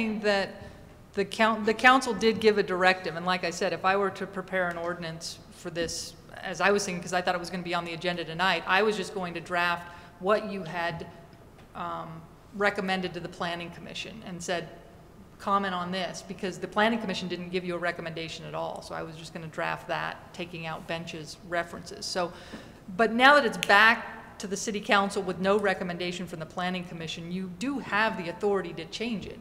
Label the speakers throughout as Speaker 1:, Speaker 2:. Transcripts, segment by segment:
Speaker 1: saying that the coun, the council did give a directive, and like I said, if I were to prepare an ordinance for this, as I was thinking, because I thought it was going to be on the agenda tonight, I was just going to draft what you had um, recommended to the planning commission and said, comment on this, because the planning commission didn't give you a recommendation at all, so I was just going to draft that, taking out benches references. So, but now that it's back to the city council with no recommendation from the planning commission, you do have the authority to change it.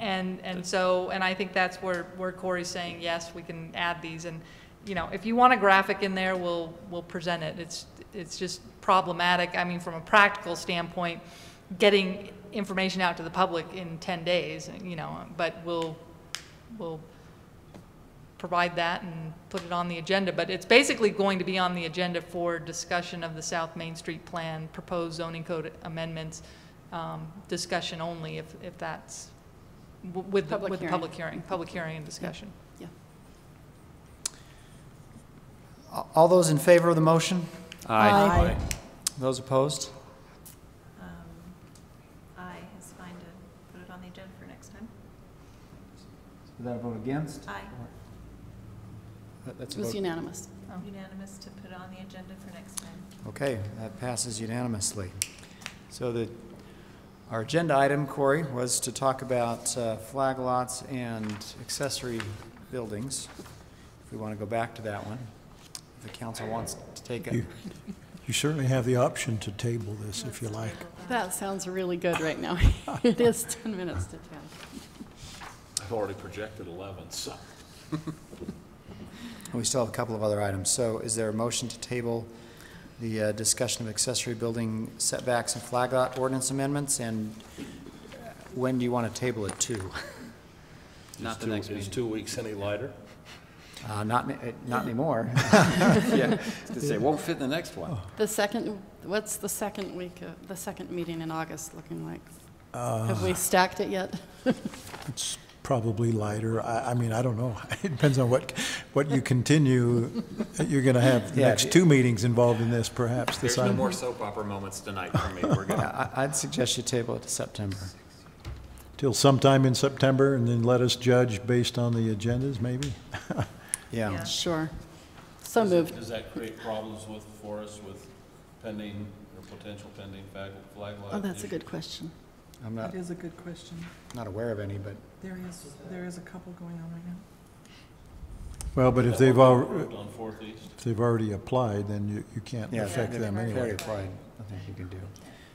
Speaker 1: And, and so, and I think that's where, where Corey's saying, yes, we can add these, and, you know, if you want a graphic in there, we'll, we'll present it. It's, it's just problematic, I mean, from a practical standpoint, getting information out to the public in ten days, you know, but we'll, we'll provide that and put it on the agenda, but it's basically going to be on the agenda for discussion of the South Main Street Plan, proposed zoning code amendments, um, discussion only, if, if that's, w- with, the-
Speaker 2: Public
Speaker 1: with the
Speaker 2: hearing.
Speaker 1: public hearing, public hearing and discussion.
Speaker 3: A- All those in favor of the motion?
Speaker 4: Aye.
Speaker 3: Those opposed?
Speaker 5: Aye is Um, fine to put it on the agenda for next time.
Speaker 3: Without a vote against?
Speaker 5: Aye,
Speaker 3: That- That's
Speaker 2: Uh, It
Speaker 3: a
Speaker 2: was
Speaker 3: vote.
Speaker 2: unanimous.
Speaker 5: unanimous to put it on the agenda for next time.
Speaker 3: Okay, that passes unanimously. So the, our agenda item, Corey, was to talk about uh, flag lots and accessory buildings. If we want to go back to that one, if the council wants to take it.
Speaker 4: You you certainly have the option to table this if you like.
Speaker 2: That sounds really good right now. It is 10 minutes to 10.
Speaker 6: I've already projected 11, so.
Speaker 3: We still have a couple of other items. So is there a motion to table the uh, discussion of accessory building setbacks and flag lot ordinance amendments? And when do you want to table it to?
Speaker 6: Not the next meeting. Is two weeks any lighter?
Speaker 3: Uh, Not, ni- eh, not anymore.
Speaker 7: Yeah, to say, won't fit in the next one.
Speaker 2: The second, what's the second week, of the second meeting in August looking like? Have we stacked it yet?
Speaker 4: It's probably lighter. I, I mean, I don't know. It depends on what, what you continue. You're going to have the
Speaker 3: Yeah,
Speaker 4: next
Speaker 3: if-
Speaker 4: two meetings involved in this perhaps. this
Speaker 6: There's no
Speaker 4: item.
Speaker 6: more soap opera moments tonight for me. We're gonna,
Speaker 3: I- I'd suggest you table it to September.
Speaker 4: Till sometime in September and then let us judge based on the agendas maybe?
Speaker 3: Yeah.
Speaker 5: Yeah.
Speaker 2: Sure. So moved.
Speaker 8: Does that create problems with, for us with pending or potential pending flag, flag lot?
Speaker 2: Oh, that's a good question.
Speaker 3: I'm not,
Speaker 9: That is a good question.
Speaker 3: not aware of any, but
Speaker 9: There is, there is a couple going on right now.
Speaker 4: Well, but if they've, al-
Speaker 8: Approved on Fourth East?
Speaker 4: if they've already applied, then you, you can't
Speaker 3: yeah.
Speaker 4: affect them
Speaker 3: they're
Speaker 4: anyway.
Speaker 3: Very applied, nothing you can do.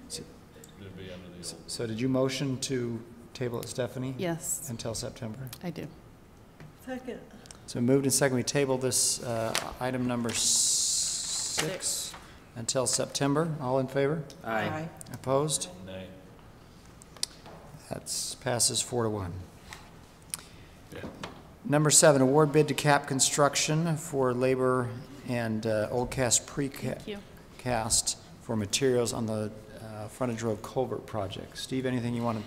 Speaker 8: It'd be under the old.
Speaker 3: So did you motion to table it, Stephanie?
Speaker 2: Yes,
Speaker 3: Until September?
Speaker 2: I do.
Speaker 9: Second.
Speaker 3: So moved and second, we table this uh, item number six until September. All in favor?
Speaker 7: Aye.
Speaker 3: Opposed?
Speaker 8: Nay.
Speaker 3: That passes four to one.
Speaker 6: Yeah.
Speaker 3: Number seven, award bid to Cap Construction for labor and uh, old cast precast
Speaker 2: Thank you.
Speaker 3: cast for materials on the uh, frontage road culvert project. Steve, anything you want to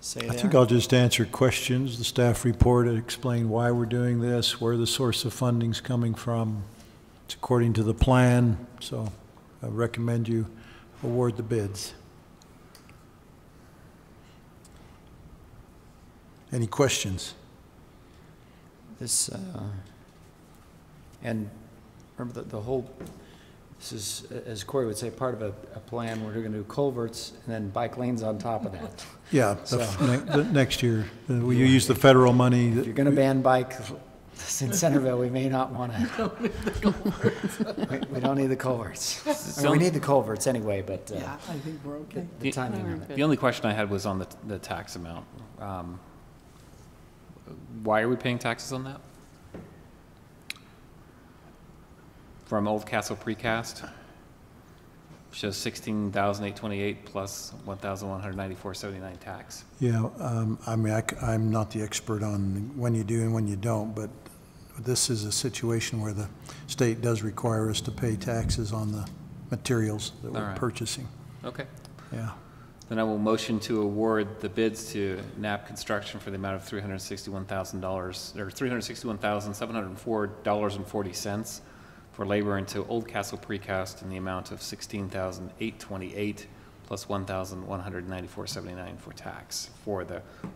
Speaker 3: say there?
Speaker 4: I think I'll just answer questions, the staff report, and explain why we're doing this, where the source of funding's coming from. It's according to the plan, so I recommend you award the bids. Any questions?
Speaker 3: This, uh, and remember that the whole, this is, as Corey would say, part of a, a plan, we're gonna do culverts and then bike lanes on top of that.
Speaker 4: Yeah, the f- ne- the next year, uh, will you use the federal money?
Speaker 3: If you're
Speaker 4: that-
Speaker 3: gonna ban bikes in Centerville, we may not wanna. We we don't need the culverts. I mean, We need the culverts anyway, but, uh,
Speaker 2: Yeah,
Speaker 9: I think we're okay.
Speaker 3: the- the timing of it.
Speaker 7: The only question I had was on the, the tax amount. Um, Why are we paying taxes on that? From Old Castle Precast? Shows sixteen thousand eight twenty-eight plus one thousand one hundred ninety-four seventy-nine tax.
Speaker 4: Yeah, um, I mean, I, am not the expert on when you do and when you don't, but this is a situation where the state does require us to pay taxes on the materials that
Speaker 7: All
Speaker 4: we're
Speaker 7: right.
Speaker 4: purchasing.
Speaker 7: Okay.
Speaker 4: Yeah.
Speaker 7: Then I will motion to award the bids to NAP Construction for the amount of three hundred sixty-one thousand dollars, or three hundred sixty-one thousand, seven hundred and four dollars and forty cents for labor into Old Castle Precast in the amount of sixteen thousand, eight twenty-eight plus one thousand one hundred ninety-four seventy-nine for tax for the